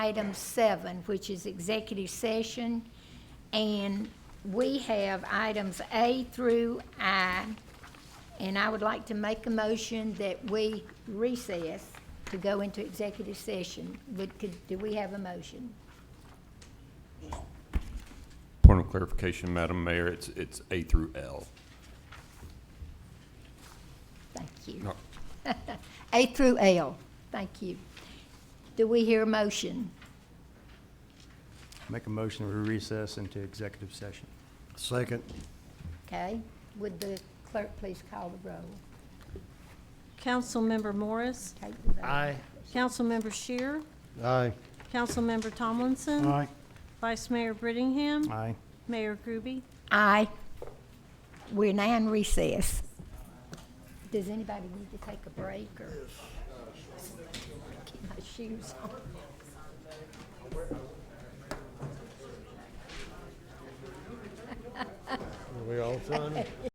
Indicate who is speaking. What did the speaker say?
Speaker 1: item seven, which is executive session. And we have items A through I. And I would like to make a motion that we recess to go into executive session. Would, could, do we have a motion?
Speaker 2: Point of clarification, Madam Mayor, it's, it's A through L.
Speaker 1: Thank you.
Speaker 2: No.
Speaker 1: A through L, thank you. Do we hear a motion?
Speaker 3: Make a motion to recess into executive session.
Speaker 4: Second.
Speaker 1: Okay, would the clerk please call the roll?
Speaker 5: Councilmember Morris,
Speaker 1: Take the vote.
Speaker 5: Councilmember Shear,
Speaker 4: Aye.
Speaker 5: Councilmember Tomlinson. Vice Mayor Brittingham,
Speaker 3: Aye.
Speaker 5: Mayor Groby.
Speaker 1: Aye. We're now in recess. Does anybody need to take a break or? Get my shoes on.
Speaker 4: Are we all done?